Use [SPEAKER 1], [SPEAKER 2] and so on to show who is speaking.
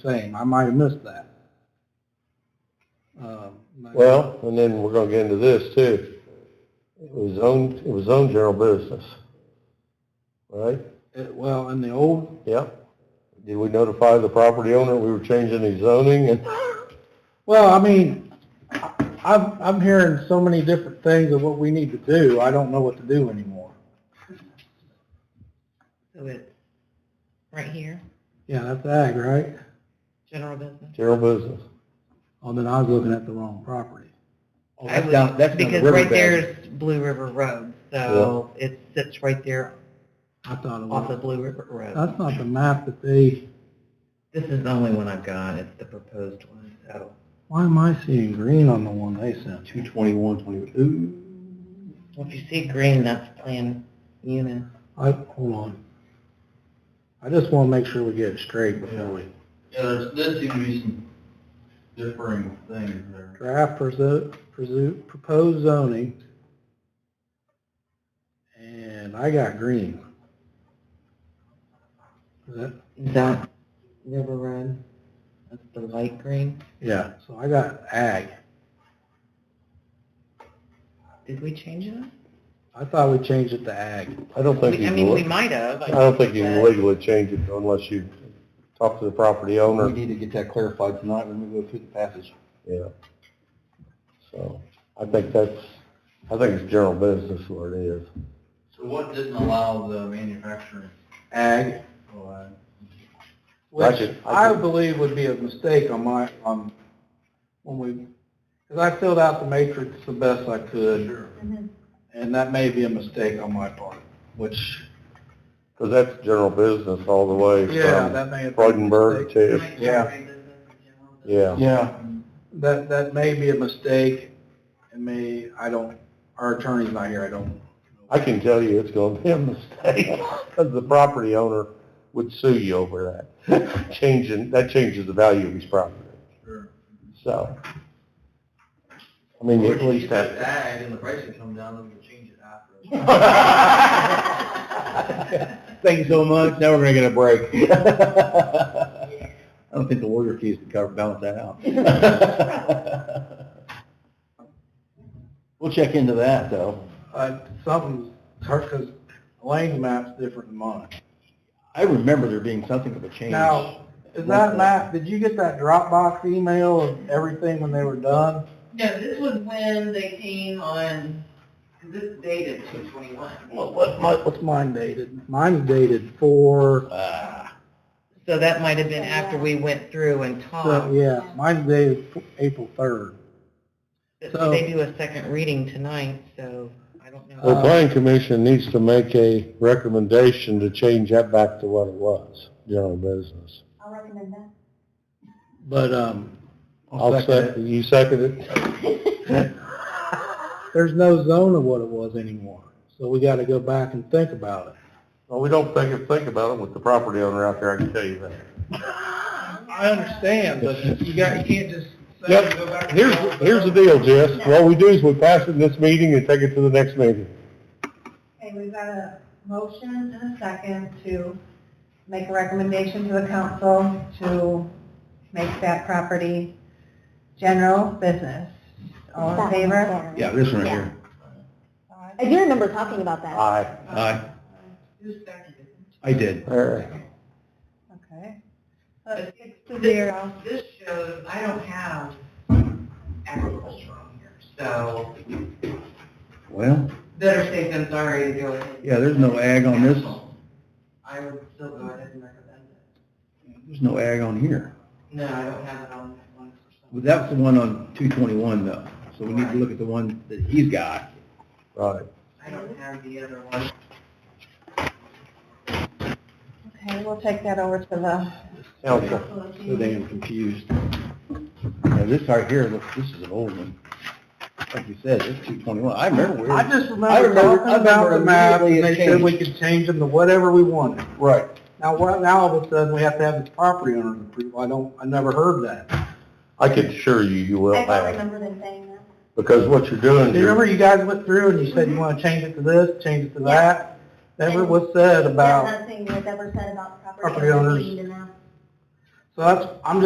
[SPEAKER 1] same. I might have missed that. Um, but-
[SPEAKER 2] Well, and then we're gonna get into this too. It was owned, it was owned general business. Right?
[SPEAKER 1] it- Well, in the old,
[SPEAKER 2] Yep. Did we notify the property owner we were changing the zoning and,
[SPEAKER 1] well, I mean, I- I'm, I'm hearing so many different things of what we need to do. I don't know what to do anymore.
[SPEAKER 3] So it's right here,
[SPEAKER 1] Yeah, that's ag, right?
[SPEAKER 3] general business.
[SPEAKER 2] general business?
[SPEAKER 1] Oh, then I was looking at the wrong property.
[SPEAKER 4] Oh,
[SPEAKER 3] I
[SPEAKER 4] that's
[SPEAKER 3] would-
[SPEAKER 4] down, that's down the
[SPEAKER 3] Because right there
[SPEAKER 4] riverbed.
[SPEAKER 3] is Blue River Road, so it sits right there
[SPEAKER 1] I thought it
[SPEAKER 3] off of
[SPEAKER 1] was,
[SPEAKER 3] Blue River Road.
[SPEAKER 1] that's not the map that they,
[SPEAKER 3] This is the only one I've got, it's the proposed one, so.
[SPEAKER 1] why am I seeing green on the one they sent?
[SPEAKER 4] Two twenty-one, twenty-two.
[SPEAKER 3] If you see green, that's Plan Una.
[SPEAKER 1] I, hold on. I just want to make sure we get it straight before we
[SPEAKER 4] Yeah, there's, there seems to be some differing things there.
[SPEAKER 1] draft presu- presu- proposed zoning. And I got green. Is that,
[SPEAKER 3] Is that River Road? That's the light green.
[SPEAKER 1] yeah, so I got ag.
[SPEAKER 3] Did we change it?
[SPEAKER 1] I thought we changed it to ag.
[SPEAKER 2] I don't think you
[SPEAKER 3] We- I mean, we
[SPEAKER 2] can,
[SPEAKER 3] might have.
[SPEAKER 2] I don't think you
[SPEAKER 3] but-
[SPEAKER 2] can legally change it unless you talk to the property owner.
[SPEAKER 4] We need to get that clarified tonight when we go through the passage.
[SPEAKER 2] Yeah. So, I think that's, I think it's general business what it is.
[SPEAKER 4] So what didn't allow the manufacturing? Oh,
[SPEAKER 1] Ag.
[SPEAKER 2] I
[SPEAKER 1] Which
[SPEAKER 2] could- I
[SPEAKER 1] I
[SPEAKER 2] could-
[SPEAKER 1] believe would be a mistake on my, um, when we, because I filled out the matrix the best I could. And that may be a mistake on my part, which,
[SPEAKER 2] Because that's general business all the way
[SPEAKER 1] yeah,
[SPEAKER 2] from
[SPEAKER 1] that may have. been a
[SPEAKER 2] Freudenberg
[SPEAKER 1] mistake.
[SPEAKER 2] to,
[SPEAKER 1] Yeah.
[SPEAKER 2] yeah.
[SPEAKER 4] Yeah.
[SPEAKER 1] That, that may be a mistake, and may, I don't, our attorney's not here, I don't.
[SPEAKER 2] I can tell you it's going to be a mistake because the property owner would sue you over that. Changing, that changes the value of his property.
[SPEAKER 4] Sure.
[SPEAKER 2] So, I mean, you at least have.
[SPEAKER 4] Ag and the pricing come down, then we'll change it after.
[SPEAKER 2] Thank you so much. Now we're going to get a break.
[SPEAKER 4] I don't think the lawyer fees would cover, balance that out. We'll check into that, though.
[SPEAKER 1] Uh, something's, because Elaine's map's different than mine.
[SPEAKER 4] I remember there being something of a change.
[SPEAKER 1] Now, is that map, did you get that Dropbox email of everything when they were done?
[SPEAKER 3] No, this was when they came on, this dated two twenty-one.
[SPEAKER 1] What, my- what's mine dated? Mine's dated four,
[SPEAKER 4] Ah,
[SPEAKER 3] So that might have been after we went through and
[SPEAKER 2] Uh,
[SPEAKER 1] so,
[SPEAKER 3] talked.
[SPEAKER 1] yeah, mine's dated f- April third. so-
[SPEAKER 3] They do a second reading tonight, so I don't
[SPEAKER 4] Oh,
[SPEAKER 2] The
[SPEAKER 3] know.
[SPEAKER 2] planning commission needs to make a recommendation to change that back to what it was, general business.
[SPEAKER 5] I'll recommend that.
[SPEAKER 1] But, um,
[SPEAKER 2] I'll second, you second it?
[SPEAKER 1] there's no zone of what it was anymore, so we gotta go back and think about it.
[SPEAKER 2] Well, we don't think, think about it with the property owner out there, I can tell you that.
[SPEAKER 1] I understand, but you got, you can't just go back.
[SPEAKER 2] Yep, here's, here's the deal, Jess, what we do is we pass it in this meeting and take it to the next meeting.
[SPEAKER 5] Okay, we've got a motion and a second to make a recommendation to the council to make that property general business. All in favor?
[SPEAKER 4] yeah, this one right here.
[SPEAKER 5] I do remember talking about that.
[SPEAKER 2] Aye.
[SPEAKER 3] Uh,
[SPEAKER 4] Aye, Uh, I did.
[SPEAKER 2] All right.
[SPEAKER 5] Okay. So it's six to zero.
[SPEAKER 3] This shows, I don't have agriculture on here, so
[SPEAKER 4] Well,
[SPEAKER 3] better safe than sorry to go ahead.
[SPEAKER 4] yeah, there's no ag on this,
[SPEAKER 3] I would still go ahead and recommend it.
[SPEAKER 4] there's no ag on here.
[SPEAKER 3] No, I don't have it on that one.
[SPEAKER 4] But that was the one on two twenty-one, though, so we need to look at the one that he's got.
[SPEAKER 2] Right.
[SPEAKER 3] I don't have the other one.
[SPEAKER 5] Okay, we'll take that over to the
[SPEAKER 2] Council.
[SPEAKER 1] So damn confused.
[SPEAKER 4] Now, this right here, look, this is an old one. Like you said, it's two twenty-one, I remember where.
[SPEAKER 1] I just
[SPEAKER 4] I
[SPEAKER 1] remember
[SPEAKER 4] remember- I
[SPEAKER 1] talking about
[SPEAKER 4] remember
[SPEAKER 1] the map, and
[SPEAKER 4] immediately
[SPEAKER 1] they
[SPEAKER 4] it
[SPEAKER 1] said we could change them to whatever we wanted.
[SPEAKER 4] Right.
[SPEAKER 1] Now, what, now all of a sudden, we have to have the property owner approval, I don't, I never heard that.
[SPEAKER 2] I can assure you, you will
[SPEAKER 5] I don't
[SPEAKER 2] have,
[SPEAKER 5] remember them saying that.
[SPEAKER 2] because what you're doing
[SPEAKER 1] Do you remember
[SPEAKER 2] here,
[SPEAKER 1] you guys went through and you said you want to change it to this, change it to that? Never was said about,
[SPEAKER 5] Nothing was ever said about
[SPEAKER 1] Property owners.
[SPEAKER 5] being enough.
[SPEAKER 1] So that's, I'm